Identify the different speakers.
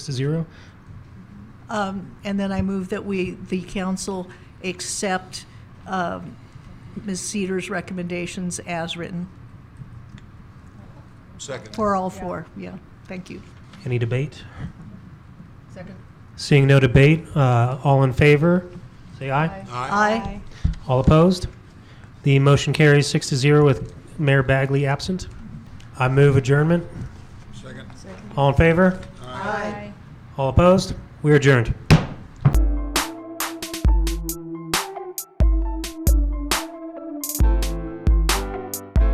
Speaker 1: to zero.
Speaker 2: Um, And then I move that we, the council, accept um, Ms. Cedar's recommendations as written,
Speaker 3: Second.
Speaker 2: for all four, yeah, thank you.
Speaker 1: Any debate?
Speaker 4: Second.
Speaker 1: Seeing no debate, uh, all in favor, say aye.
Speaker 3: Aye.
Speaker 2: Aye,
Speaker 1: All opposed? The motion carries six to zero with Mayor Bagley absent. I move adjournment.
Speaker 3: Second.
Speaker 1: All in favor?
Speaker 4: Aye.
Speaker 1: All opposed? We are adjourned.